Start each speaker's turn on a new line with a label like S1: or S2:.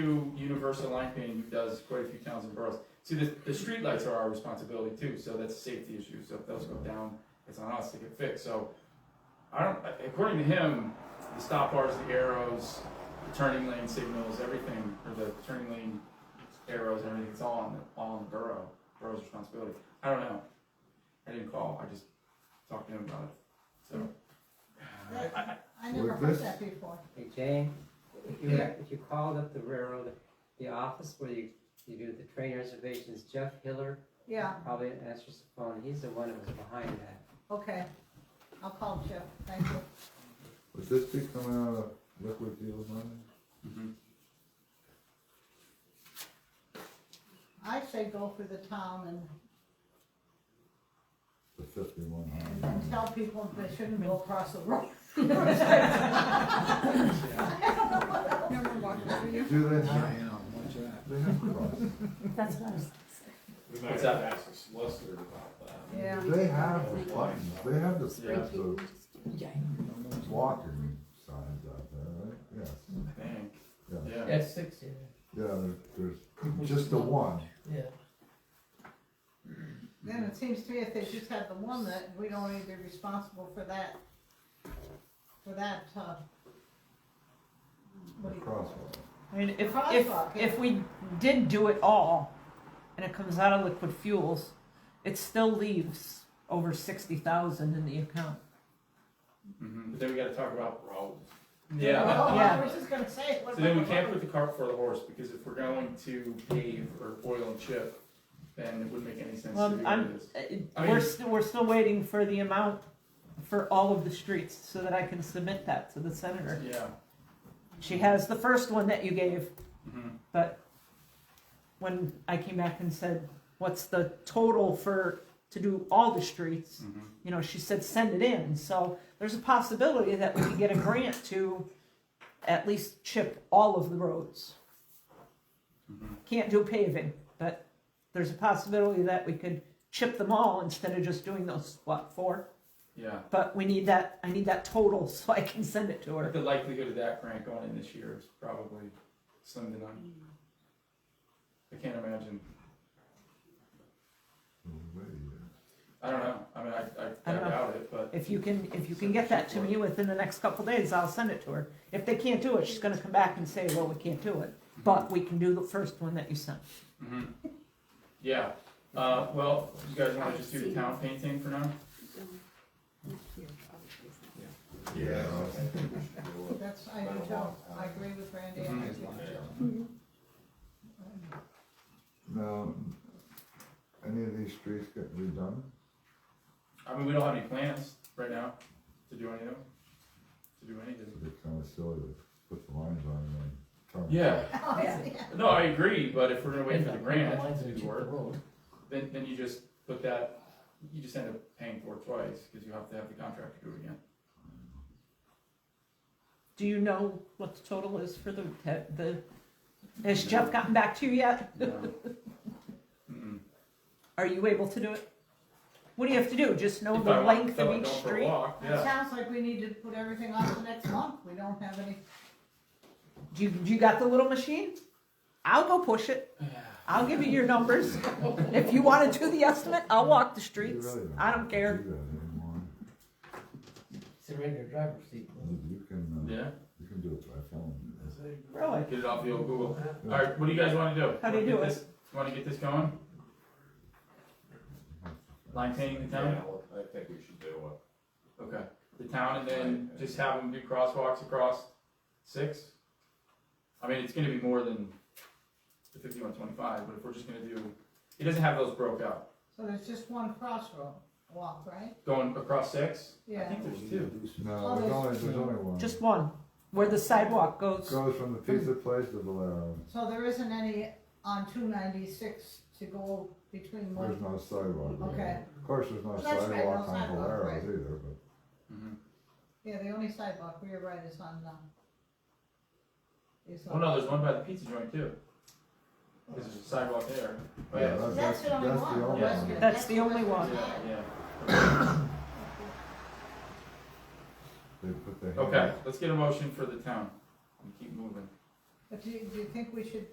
S1: to Universal Line Painting, who does quite a few towns and boroughs. See, the, the streetlights are our responsibility too, so that's a safety issue, so if those go down, it's on us to get fixed, so. I don't, according to him, the stop bars, the arrows, the turning lane signals, everything, or the turning lane arrows, everything, it's all on, the all on the borough, borough's responsibility. I don't know, I didn't call, I just talked to him about it, so.
S2: That-
S1: I- I-
S2: I never
S3: With
S2: heard
S3: this?
S2: that before.
S4: Hey, Jane, if you,
S1: Yeah.
S4: if you called up the railroad, the office where you, you do the train reservations, Jeff Hiller
S2: Yeah,
S4: probably answers the phone, he's the one that was behind that.
S2: okay. I'll call Jeff, thank you.
S3: Would this be coming out of liquid deals money?
S2: I say go for the town and-
S3: The fifty-one hundred?
S2: and tell people they shouldn't go across the road.
S5: Never walked over you.
S3: Do they
S6: I
S3: have,
S6: am, watch that.
S3: they have costs?
S7: That's what I was.
S8: We might
S1: What's
S8: have
S1: that?
S8: to ask the solicitor about that.
S2: Yeah.
S3: They have the buttons, they have the,
S1: Yeah.
S3: the walking signs out there, right? Yes,
S1: I think,
S3: yeah,
S1: yeah.
S9: That's six, yeah.
S3: yeah, there- there's just the one.
S9: Yeah.
S2: Then it seems to me if they just have the one that, we don't need to be responsible for that, for that, uh,
S3: The
S2: what do you call
S3: crosswalk.
S7: I mean, if, if,
S2: Crosswalk, yeah.
S7: if we did do it all, and it comes out of liquid fuels, it still leaves over sixty thousand in the account.
S1: Mhm. But then we gotta talk about,
S8: Roads.
S1: yeah,
S2: Oh,
S1: that-
S2: I was just gonna say. what
S1: So then we
S2: about-
S1: can't put the cart before the horse, because if we're going to pave or oil and chip, then it wouldn't make any sense to
S7: Well,
S1: do
S7: I'm-
S1: this.
S7: Uh, it-
S1: I
S7: We're
S1: mean-
S7: still, we're still waiting for the amount for all of the streets, so that I can submit that to the senator.
S1: Yeah,
S7: She has the first one that you gave,
S1: mhm,
S7: But when I came back and said, what's the total for, to do all the streets?
S1: mhm.
S7: You know, she said, send it in. So there's a possibility that we could get a grant to at least chip all of the roads.
S1: Mm-hmm.
S7: Can't do paving, but there's a possibility that we could chip them all instead of just doing those, what, four?
S1: yeah.
S7: But we need that, I need that total so I can send it to
S1: But
S7: her.
S1: the likelihood of that grant going in this year is probably slim to none. I can't imagine, I don't know, I mean, I, I, I
S7: I don't know.
S1: doubt it, but,
S7: If you can, if you can get that to me within the next couple days, I'll send it to her. If they can't do it, she's gonna come back and say, well, we can't do it, but we can do the first one that you sent.
S1: mhm. Yeah, uh, well, you guys wanna just do the town painting for now?
S3: Yeah.
S2: That's, I do Joe, I agree with Randy, and I do
S1: Mm-hmm.
S2: Joe.
S3: Now, any of these streets get redone?
S1: I mean, we don't have any plans right now to do any of them, to do any of them.
S3: It's kinda silly to put the lines on and then turn.
S1: Yeah,
S2: Oh, yeah.
S1: No, I agree, but if we're gonna wait for the grant
S9: Lines
S1: to
S9: that
S1: do the
S9: keep the
S1: work,
S9: road.
S1: then, then you just put that, you just end up paying for it twice, cause you have to have the contract to do it again.
S7: Do you know what the total is for the, the, has Jeff gotten back to you yet?
S1: No. Mm-mm.
S7: Are you able to do it? What do you have to do? Just know
S1: If
S7: the
S1: I want-
S7: length
S1: if I
S7: of each
S1: go for a
S7: street?
S1: walk,
S2: It
S1: Yeah,
S2: sounds like we need to put everything off to next month, we don't have any,
S7: Do you, do you got the little machine? I'll go push it. I'll give you your numbers. If you wanna do the estimate, I'll walk the
S3: You
S7: streets.
S3: really
S7: I don't care.
S3: do that anymore.
S9: It's a regular driver's seat.
S3: You can, uh,
S1: yeah,
S3: you can do it by phone.
S7: Really?
S1: get it off the old Google. Alright, what do you guys wanna do?
S7: How do
S1: Wanna
S7: you
S1: get
S7: do it?
S1: this- Wanna get this going? Line painting the
S8: Yeah,
S1: town?
S8: well, I think we should do uh, it.
S1: Okay, the town and then just have them do crosswalks across six? I mean, it's gonna be more than the fifty-one twenty-five, but if we're just gonna do, he doesn't have those broke out.
S2: so there's just one crossroad walk, right?
S1: Going across six? I
S2: Yeah.
S1: think there's two.
S3: No, there's only, there's only one.
S7: Just one, where the sidewalk goes.
S3: Goes from the pizza place to Valero,
S2: So there isn't any on two ninety-six to go between one.
S3: there's no sidewalk.
S2: Okay.
S3: Of course, there's no
S2: Well, that's right, no
S3: sidewalk on
S2: sidewalk,
S3: Valero
S2: right.
S3: either, but.
S1: Mhm.
S2: Yeah, the only sidewalk, we are right, is on, um. is
S1: Oh
S2: on-
S1: no, there's one by the pizza joint too. Cause there's a sidewalk there. Oh,
S3: Yeah,
S1: yeah,
S3: that-
S2: That's the only
S3: that's the
S2: one.
S3: only
S1: Yes.
S3: one.
S7: That's the only one.
S1: yeah, yeah.
S3: They put the.
S1: Okay,
S3: hand-
S1: let's get a motion for the town and keep moving.
S2: But do you, do you think we should